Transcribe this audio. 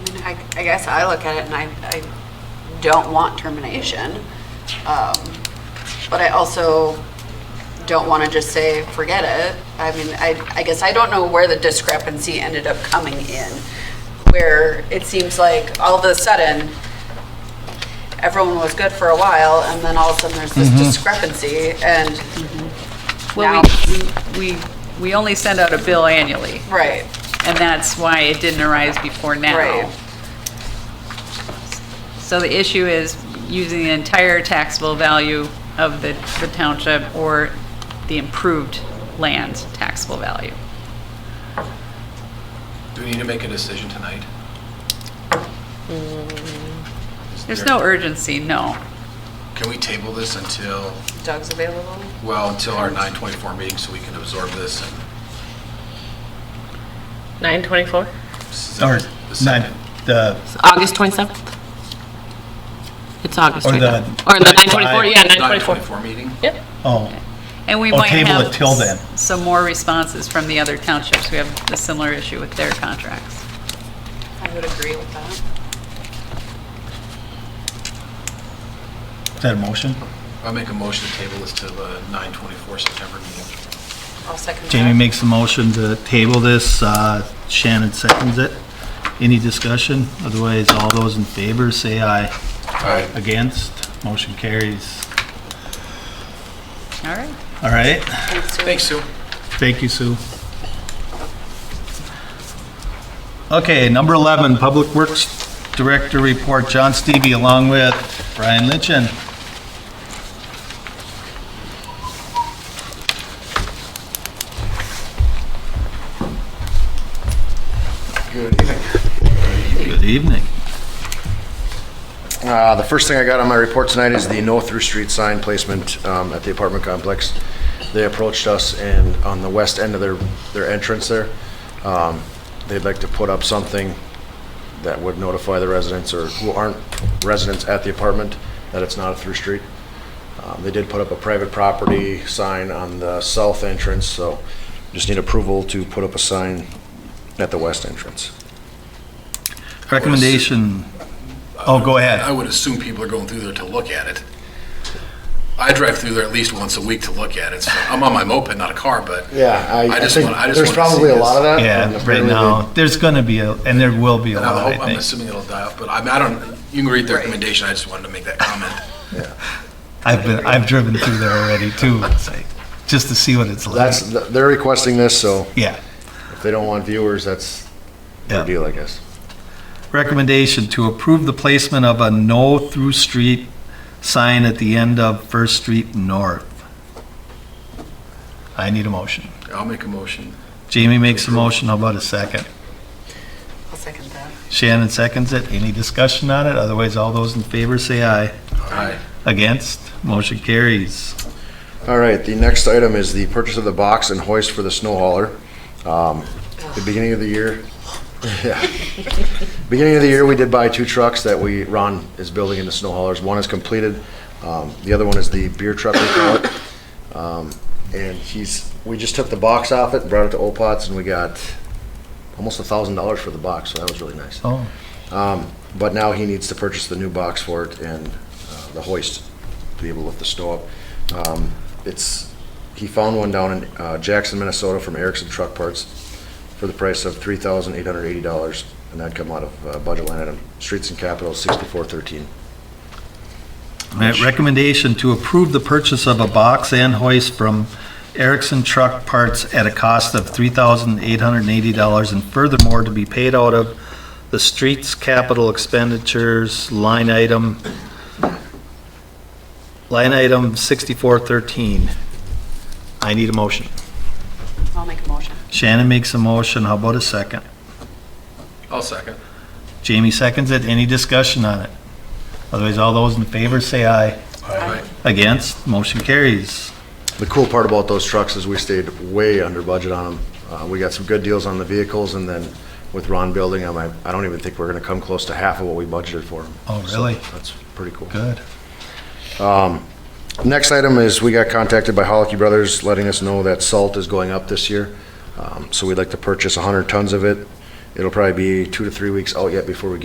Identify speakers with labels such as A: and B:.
A: I, I guess I look at it and I, I don't want termination. Um, But I also don't want to just say, forget it. I mean, I, I guess I don't know where the discrepancy ended up coming in, where it seems like all of a sudden, everyone was good for a while, and then all of a sudden there's this discrepancy, and,
B: Well, we, we, we only send out a bill annually,
A: right,
B: and that's why it didn't arise before
A: Right.
B: now. So the issue is using the entire taxable value of the, the township or the improved land taxable value.
C: Do we need to make a decision tonight? Is
B: There's
C: there-
B: no urgency, no.
C: Can we table this until,
A: Doug's available?
C: well, until our 9:24 meeting so we can absorb this and
D: 924?
C: this is the
E: Or nine,
C: second?
E: the,
D: August 27th? It's August
E: Or the-
D: 27th. Or the 924, yeah, 924.
C: 9:24 meeting?
D: Yep.
E: oh,
B: And we
E: Well,
B: might
E: table
B: have
E: it till then.
B: s- some more responses from the other townships who have a similar issue with their contracts.
A: I would agree with that.
E: is that a motion?
C: I'll make a motion to table this to the 9:24 September meeting.
A: I'll second that.
E: Jamie makes a motion to table this, uh, Shannon seconds it. Any discussion? Otherwise, all those in favor, say aye.
C: All right.
E: Against, motion carries.
B: All right.
E: All right,
C: Thanks, Sue.
E: thank you, Sue. Okay, number 11, Public Works Director Report, John Stevie along with Brian Lynchen.
F: Good evening.
E: Good evening.
F: Uh, The first thing I got on my report tonight is the no through street sign placement um, at the apartment complex. They approached us and on the west end of their, their entrance there, um, they'd like to put up something that would notify the residents or who aren't residents at the apartment that it's not a through street. Um, They did put up a private property sign on the south entrance, so just need approval to put up a sign at the west entrance.
E: Recommendation, oh, go ahead.
C: I would assume people are going through there to look at it. I drive through there at least once a week to look at it. so I'm on my moped, not a car, but.
F: Yeah, I,
C: I
F: I
C: just
F: think
C: wanna- I just wanna
F: there's
C: see
F: probably a
C: this.
F: lot of that. and
E: Yeah, right
F: apparently they-
E: now, there's gonna be, a and there will be a
C: And I
E: lot,
C: hope,
E: I
C: I'm
E: think.
C: assuming it'll die up, but I mean, I don't, you can read the recommendation, I just wanted to make that comment.
E: I've been, I've driven through there already too, it's like, just to see what it's like.
F: That's, they're requesting this, so
E: Yeah.
F: if they don't want viewers, that's their
E: Yeah.
F: deal, I guess.
E: Recommendation to approve the placement of a no through street sign at the end of First Street North. I need a motion.
C: I'll make a motion.
E: Jamie makes a motion, how about a second?
A: I'll second that.
E: Shannon seconds it, any discussion on it? Otherwise, all those in favor say aye.
C: Aye.
E: Against, motion carries.
F: All right, the next item is the purchase of the box and hoist for the snow hauler. Um, The beginning of the year, yeah. Beginning of the year, we did buy two trucks that we, Ron is building into snow haulers. One is completed, um, the other one is the beer truck we call it. Um, And he's, we just took the box off it, brought it to Opats, and we got almost a thousand dollars for the box, so that was really nice.
E: Oh,
F: Um, But now he needs to purchase the new box for it and uh, the hoist to be able to lift the snow up. Um, It's, he found one down in uh, Jackson, Minnesota from Erickson Truck Parts for the price of $3,880, and that'd come out of uh, budget line item, streets and capital, 6413.
E: Alright, Recommendation to approve the purchase of a box and hoist from Erickson Truck Parts at a cost of $3,880 and furthermore to be paid out of the streets capital expenditures line item, line item 6413. I need a motion.
A: I'll make a motion.
E: Shannon makes a motion, how about a second?
C: I'll second.
E: Jamie seconds it, any discussion on it? Otherwise, all those in favor say aye.
C: Aye.
E: Against, motion carries.
F: The cool part about those trucks is we stayed way under budget on them. Uh, We got some good deals on the vehicles, and then with Ron building them, I I don't even think we're going to come close to half of what we budgeted for them.
E: Oh, really?
F: That's pretty cool.
E: Good.
F: Next item is, we got contacted by Holicky Brothers letting us know that salt is going up this year. Um, So we'd like to purchase 100 tons of it. It'll probably be two to three weeks out yet before we get